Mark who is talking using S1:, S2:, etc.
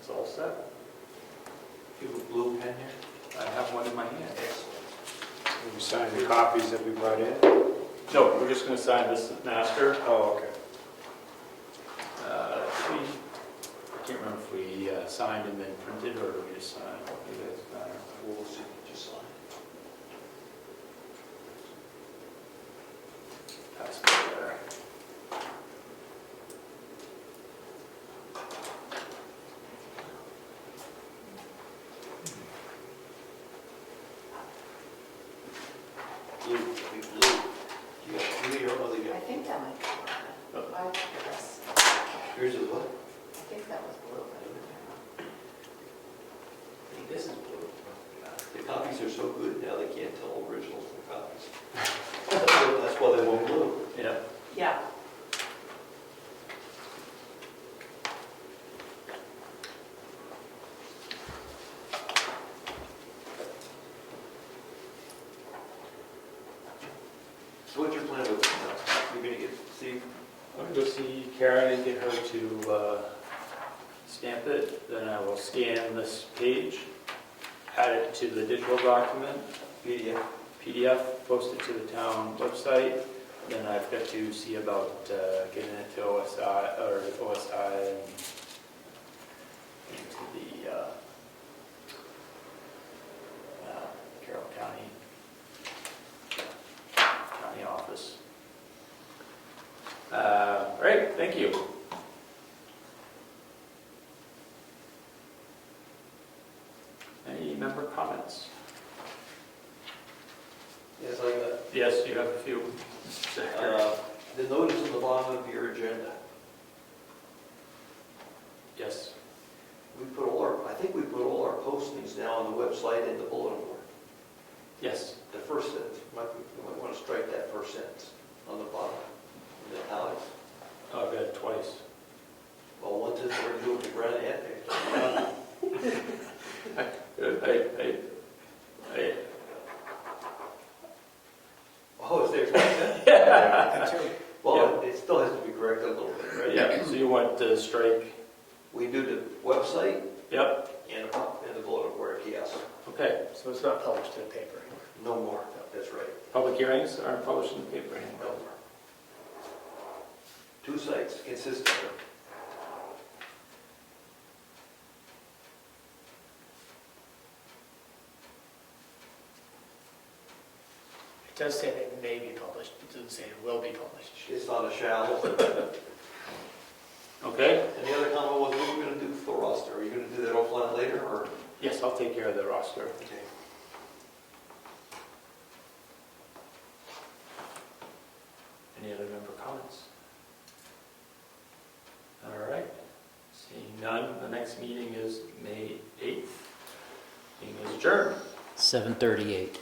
S1: that?
S2: Do you have a blue pen here? I have one in my hand.
S3: We signed the copies that we brought in?
S4: No, we're just going to sign this master.
S3: Oh, okay.
S4: Uh, we- I can't remember if we uh, signed and then printed or we just signed. Maybe that's better.
S2: We'll see, just sign.
S4: That's better.
S2: Blue, be blue. You got blue, your other,
S5: I
S2: you
S5: think that might be blue. I yes.
S2: got, here's a what?
S5: I think that was blue. but I don't remember.
S2: This is blue. The copies are so good now, they can't tell originals from copies. That's why they won't blue.
S4: Yeah.
S5: Yeah.
S2: So what's your plan with this now? You're gonna get, see,
S4: I'm gonna go see Karen and get her to uh, stamp it, then I will scan this page, add it to the digital document,
S2: PDF?
S4: PDF, post it to the town website, then I've got to see about uh, getting it to OSI, or OSI and into the uh, uh, Carroll County, county office. Uh, All right, thank you. Any member comments?
S2: Yes, I got.
S4: Yes, you have a few. Mr. Hacker.
S2: Uh, The notice on the bottom of your agenda,
S4: Yes,
S2: we put all our, I think we put all our postings now on the website and the bulletin board.
S4: yes.
S2: The first sentence, you might, you might want to strike that first sentence on the bottom, in the italics.
S4: Oh, I've got it twice.
S2: Well, one says we're doing the Brown Act.
S4: I, I, I,
S2: Oh, is there twice that? Well, it still has to be corrected a little bit, right?
S4: yeah, so you want to strike,
S2: We do the website
S4: yep,
S2: and the, and the bulletin board, yes,
S4: okay.
S1: So it's not published in the paper anymore?
S2: no more, that's right,
S4: Public hearings aren't published in the paper
S2: no
S4: anymore.
S2: more. Two sites, consistent.
S1: It does say that it may be published, it doesn't say it will be published.
S2: It's not a shallow.
S4: Okay,
S2: And the other comment was, what are you gonna do with the roster? Are you gonna do that offline later, or?
S4: yes, I'll take care of the roster. Any other member comments? All right, seeing none, the next meeting is May 8th. Meeting is adjourned.
S6: 7:38.